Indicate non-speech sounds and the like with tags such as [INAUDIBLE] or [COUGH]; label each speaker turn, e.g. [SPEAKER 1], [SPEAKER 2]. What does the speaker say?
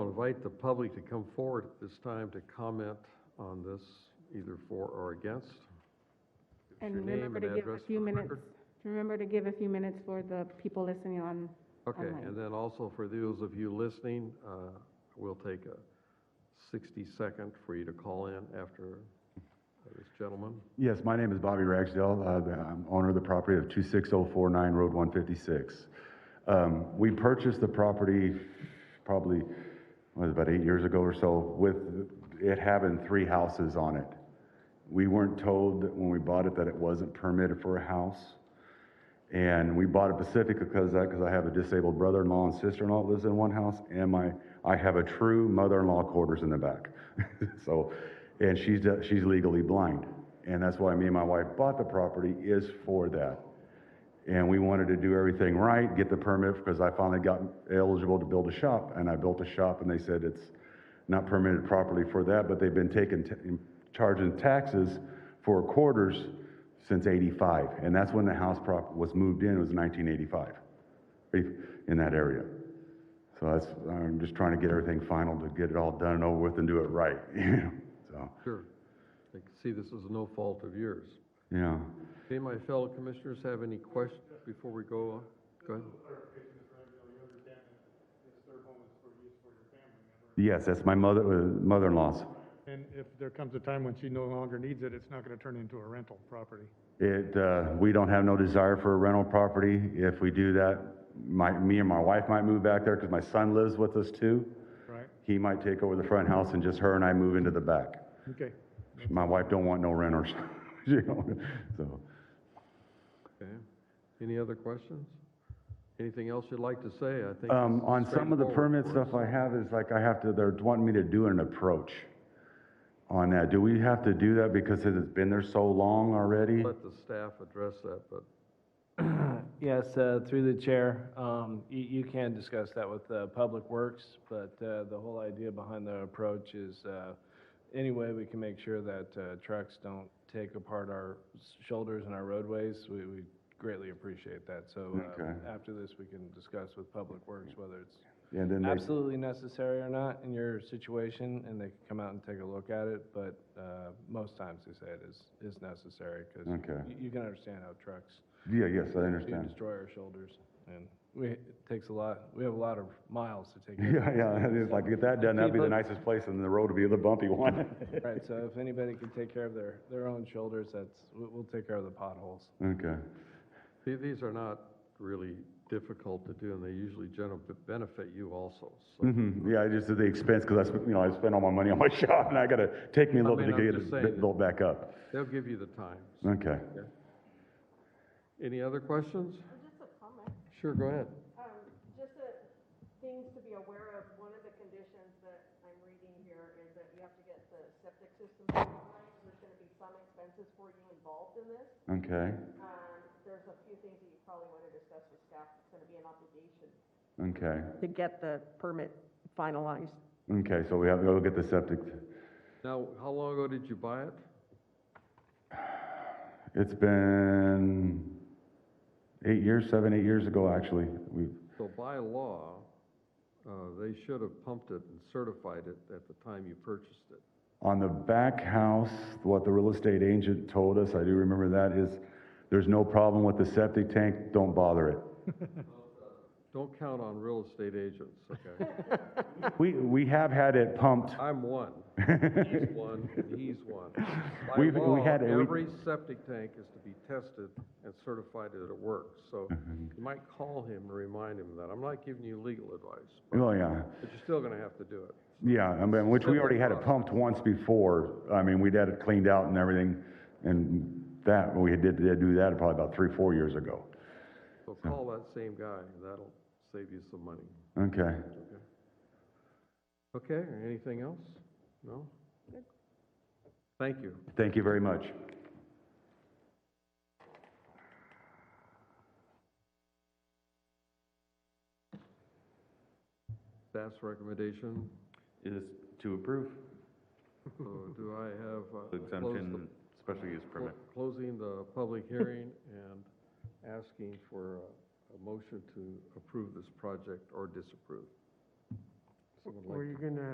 [SPEAKER 1] invite the public to come forward at this time to comment on this, either for or against. Give us your
[SPEAKER 2] And
[SPEAKER 1] name
[SPEAKER 2] remember to
[SPEAKER 1] and
[SPEAKER 2] give a
[SPEAKER 1] address
[SPEAKER 2] few
[SPEAKER 1] for the
[SPEAKER 2] minutes,
[SPEAKER 1] record.
[SPEAKER 2] remember to give a few minutes for the people listening on,
[SPEAKER 1] Okay,
[SPEAKER 2] online.
[SPEAKER 1] and then also for those of you listening, uh, we'll take a 60-second for you to call in after this gentleman.
[SPEAKER 3] Yes, my name is Bobby Ragsdale. Uh, the- I'm owner of the property of 26049 Road 156. Um, We purchased the property probably, what, about eight years ago or so, with it having three houses on it. We weren't told that when we bought it that it wasn't permitted for a house. And we bought it specifically because that, because I have a disabled brother-in-law and sister-in-law that lives in one house, and my, I have a true mother-in-law quarters in the back. [LAUGHS] So, and she's, she's legally blind. And that's why me and my wife bought the property is for that. And we wanted to do everything right, get the permit, because I finally got eligible to build a shop, and I built a shop, and they said it's not permitted properly for that, but they've been taking, t- charging taxes for quarters since eighty-five, and that's when the house prop was moved in, was nineteen eighty-five, in that area. So that's, I'm just trying to get everything final to get it all done and over with and do it right, [LAUGHS] you know, so,
[SPEAKER 1] Sure. I can see this is no fault of yours.
[SPEAKER 3] you know.
[SPEAKER 1] Any of my fellow commissioners have any questions before we go on? Go ahead.
[SPEAKER 3] Yes, that's my mother, uh, mother-in-law's.
[SPEAKER 4] And if there comes a time when she no longer needs it, it's not going to turn into a rental property.
[SPEAKER 3] It, uh, we don't have no desire for a rental property. If we do that, my, me and my wife might move back there because my son lives with us too.
[SPEAKER 4] Right.
[SPEAKER 3] He might take over the front house and just her and I move into the back.
[SPEAKER 4] Okay.
[SPEAKER 3] My wife don't want no renters, [LAUGHS] you know, so.
[SPEAKER 1] Okay. Any other questions? Anything else you'd like to say? I think.
[SPEAKER 3] Um,
[SPEAKER 1] this is
[SPEAKER 3] on some of the
[SPEAKER 1] straightforward
[SPEAKER 3] permit
[SPEAKER 1] for us.
[SPEAKER 3] stuff I have is like I have to, they're wanting me to do an approach on that. Do we have to do that because it's been there so long already?
[SPEAKER 1] Let the staff address that, but
[SPEAKER 5] Yes, uh, through the chair, um, you you can discuss that with uh, Public Works, but uh, the whole idea behind the approach is uh, any way we can make sure that uh, trucks don't take apart our s- shoulders and our roadways, we we greatly appreciate that. So uh,
[SPEAKER 3] Okay.
[SPEAKER 5] after this, we can discuss with Public Works whether it's
[SPEAKER 3] And then they,
[SPEAKER 5] absolutely necessary or not in your situation, and they can come out and take a look at it, but uh, most times they say it is is necessary, because
[SPEAKER 3] Okay.
[SPEAKER 5] you can understand how trucks
[SPEAKER 3] yeah, yes, I
[SPEAKER 5] to
[SPEAKER 3] understand. [LAUGHS]
[SPEAKER 5] destroy our shoulders, and we, it takes a lot, we have a lot of miles to
[SPEAKER 3] [LAUGHS]
[SPEAKER 5] take.
[SPEAKER 3] Yeah, yeah, it's like, get that done, that'd be the nicest place, and the road would be the bumpy one. [LAUGHS]
[SPEAKER 5] Right, so if anybody can take care of their, their own shoulders, that's, we'll, we'll take care of the potholes.
[SPEAKER 3] Okay,
[SPEAKER 1] the- these are not really difficult to do, and they usually generally benefit you also, so.
[SPEAKER 3] hmm yeah, I just did the expense, because I, sp- you know, I spent all my money on [LAUGHS] my shop, and I gotta, take me a little
[SPEAKER 1] I
[SPEAKER 3] bit to
[SPEAKER 1] mean, I'm
[SPEAKER 3] get
[SPEAKER 1] just
[SPEAKER 3] it
[SPEAKER 1] saying
[SPEAKER 3] bit- built back up.
[SPEAKER 1] They'll give you the time.
[SPEAKER 3] Okay,
[SPEAKER 1] Any other questions?
[SPEAKER 6] Just a comment,
[SPEAKER 1] Sure, go ahead.
[SPEAKER 6] um, just a, things to be aware of, one of the conditions that I'm reading here is that you have to get the septic system finalized. There's gonna be some expenses for you involved in this.
[SPEAKER 3] okay,
[SPEAKER 6] Um, there's a few things that you probably wanna discuss with staff, it's gonna be an obligation.
[SPEAKER 3] okay,
[SPEAKER 6] To get the permit finalized.
[SPEAKER 3] okay, so we have to go get the septic.
[SPEAKER 1] Now, how long ago did you buy it?
[SPEAKER 3] It's been eight years, seven, eight years ago, actually, we,
[SPEAKER 1] So by law, uh, they should have pumped it and certified it at the time you purchased it.
[SPEAKER 3] On the back house, what the real estate agent told us, I do remember that, is there's no problem with the septic tank, don't
[SPEAKER 1] [LAUGHS]
[SPEAKER 3] bother it.
[SPEAKER 1] Don't count on real estate agents, okay?
[SPEAKER 3] We, we have had it pumped,
[SPEAKER 1] I'm
[SPEAKER 3] [LAUGHS]
[SPEAKER 1] one. He's one, and he's one. By
[SPEAKER 3] We've- we
[SPEAKER 1] law,
[SPEAKER 3] had a- we-
[SPEAKER 1] every septic tank is to be tested and certified that it works.
[SPEAKER 3] [LAUGHS]
[SPEAKER 1] So
[SPEAKER 3] Mm-hmm.
[SPEAKER 1] you might call him and remind him of that. I'm not giving you legal advice,
[SPEAKER 3] oh yeah,
[SPEAKER 1] but you're still gonna have to do it.
[SPEAKER 3] yeah, I mean, which we already had it pumped once before. I mean, we'd had it cleaned out and everything, and that, we did, did do that probably about three, four years ago.
[SPEAKER 1] So call that same guy, and that'll save you some money.
[SPEAKER 3] Okay,
[SPEAKER 1] Okay, anything else? No? Thank you.
[SPEAKER 3] thank you very much.
[SPEAKER 1] Staff's
[SPEAKER 3] [LAUGHS]
[SPEAKER 1] recommendation,
[SPEAKER 7] is to approve
[SPEAKER 1] so do I have, uh,
[SPEAKER 7] the
[SPEAKER 1] close the-
[SPEAKER 7] exemption special use
[SPEAKER 1] clo-
[SPEAKER 7] permit.
[SPEAKER 1] Closing the public hearing and asking for a, a motion to approve this project or disapprove.
[SPEAKER 6] Were you gonna